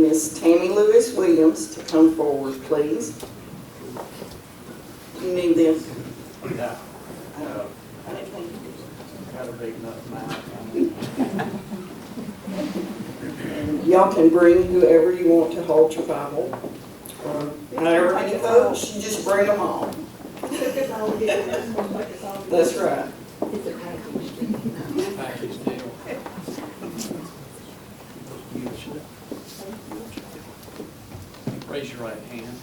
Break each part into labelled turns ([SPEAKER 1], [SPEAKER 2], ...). [SPEAKER 1] Miss Tammy Lewis Williams to come forward, please. You need this?
[SPEAKER 2] Yeah,
[SPEAKER 1] Uh,
[SPEAKER 2] uh,
[SPEAKER 1] I didn't think you did.
[SPEAKER 2] got a big enough mouth.
[SPEAKER 1] And Y'all can bring whoever you want to hold your Bible. Um, or However many folks, you just bring them all. That's right.
[SPEAKER 2] Package deal. Raise your right hand.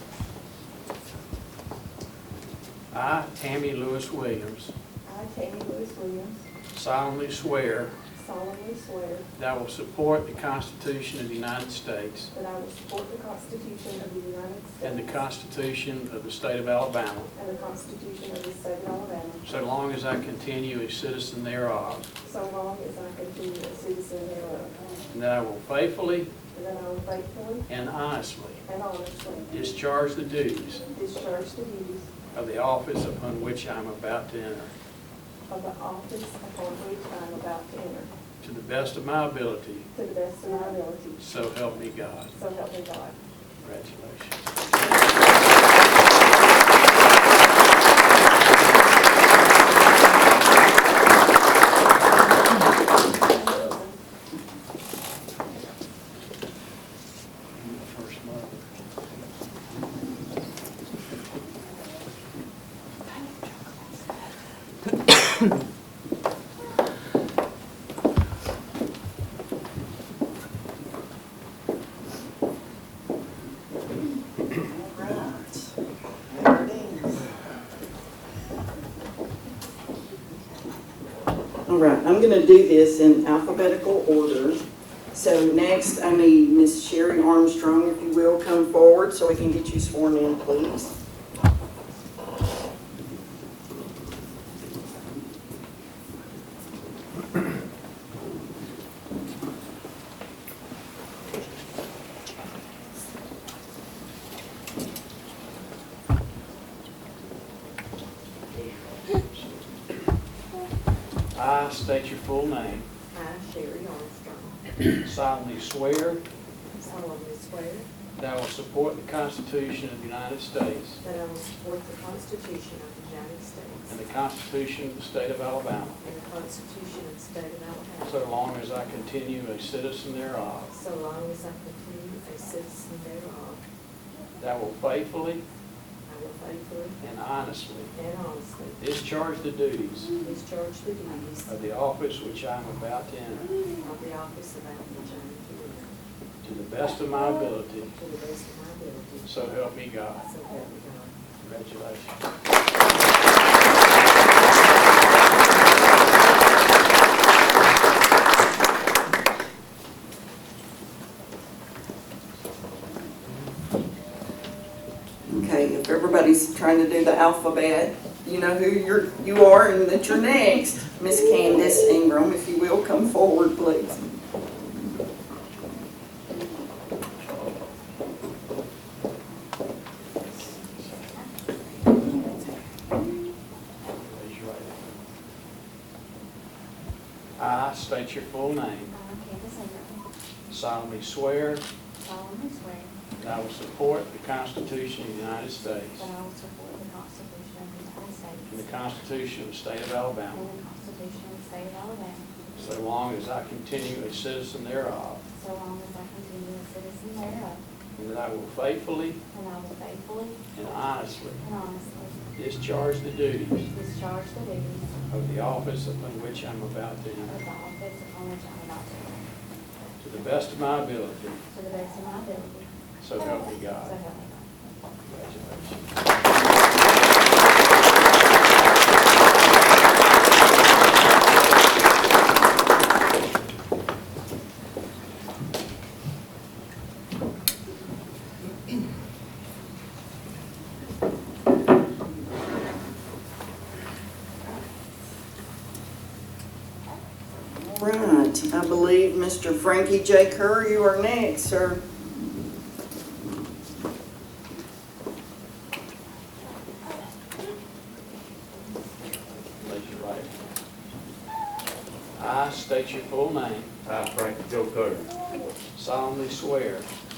[SPEAKER 2] I, Tammy Lewis Williams,
[SPEAKER 3] I, Tammy Lewis Williams,
[SPEAKER 2] solemnly swear
[SPEAKER 3] solemnly swear
[SPEAKER 2] that I will support the Constitution of the United States
[SPEAKER 3] that I will support the Constitution of the United States
[SPEAKER 2] and the Constitution of the State of Alabama,
[SPEAKER 3] and the Constitution of the State of Alabama,
[SPEAKER 2] so long as I continue a citizen thereof,
[SPEAKER 3] so long as I continue a citizen thereof,
[SPEAKER 2] and that I will faithfully
[SPEAKER 3] and that I will faithfully
[SPEAKER 2] and honestly
[SPEAKER 3] and honestly
[SPEAKER 2] discharge the duties
[SPEAKER 3] discharge the duties
[SPEAKER 2] of the office upon which I am about to enter,
[SPEAKER 3] of the office upon which I am about to enter,
[SPEAKER 2] to the best of my ability,
[SPEAKER 3] to the best of my ability,
[SPEAKER 2] so help me God.
[SPEAKER 3] so help me God.
[SPEAKER 2] Congratulations. First mother.
[SPEAKER 1] All right. There it is. All right, I'm going to do this in alphabetical order. So next, I need Miss Sherry Armstrong, if you will, come forward so we can get you sworn in, please.
[SPEAKER 2] I state your full name,
[SPEAKER 4] I, Sherry Armstrong,
[SPEAKER 2] solemnly swear
[SPEAKER 4] solemnly swear
[SPEAKER 2] that I will support the Constitution of the United States
[SPEAKER 4] that I will support the Constitution of the United
[SPEAKER 2] and
[SPEAKER 4] States
[SPEAKER 2] the Constitution of the State of Alabama,
[SPEAKER 4] and the Constitution of the State of Alabama,
[SPEAKER 2] so long as I continue a citizen thereof,
[SPEAKER 4] so long as I continue a citizen thereof,
[SPEAKER 2] that I will faithfully
[SPEAKER 4] I will faithfully
[SPEAKER 2] and honestly
[SPEAKER 4] and honestly
[SPEAKER 2] discharge the duties
[SPEAKER 4] discharge the duties
[SPEAKER 2] of the office which I am about to enter,
[SPEAKER 4] of the office of Alabama County
[SPEAKER 2] to the best of my ability,
[SPEAKER 4] to the best of my ability,
[SPEAKER 2] so help me God.
[SPEAKER 4] so help me God.
[SPEAKER 2] Congratulations.
[SPEAKER 1] Okay, if everybody's trying to do the alphabet, you know who you're, you are and that you're next. Miss Candace Ingram, if you will, come forward, please.
[SPEAKER 2] Raise your right hand. I state your full name,
[SPEAKER 5] I, Candace Ingram,
[SPEAKER 2] solemnly swear
[SPEAKER 5] solemnly swear
[SPEAKER 2] that I will support the Constitution of the United States
[SPEAKER 5] that I will support the Constitution of the United
[SPEAKER 2] and the
[SPEAKER 5] States
[SPEAKER 2] Constitution of the State of
[SPEAKER 5] and
[SPEAKER 2] Alabama,
[SPEAKER 5] the Constitution of the State of Alabama,
[SPEAKER 2] so long as I continue a citizen thereof,
[SPEAKER 5] so long as I continue a citizen thereof,
[SPEAKER 2] and that I will faithfully
[SPEAKER 5] and I will faithfully
[SPEAKER 2] and honestly
[SPEAKER 5] and honestly
[SPEAKER 2] discharge the duties
[SPEAKER 5] discharge the duties
[SPEAKER 2] of the office upon which I'm about to
[SPEAKER 5] of
[SPEAKER 2] enter,
[SPEAKER 5] the office upon which I am about to enter,
[SPEAKER 2] to the best of my ability,
[SPEAKER 5] to the best of my ability,
[SPEAKER 2] so help me
[SPEAKER 5] so
[SPEAKER 2] God.
[SPEAKER 5] help me God.
[SPEAKER 2] Congratulations.
[SPEAKER 1] All right, I believe Mr. Frankie J. Kerr, you are next, sir.
[SPEAKER 2] Raise your right hand. I state your full name,
[SPEAKER 6] I, Frank Joe Carter,
[SPEAKER 2] solemnly swear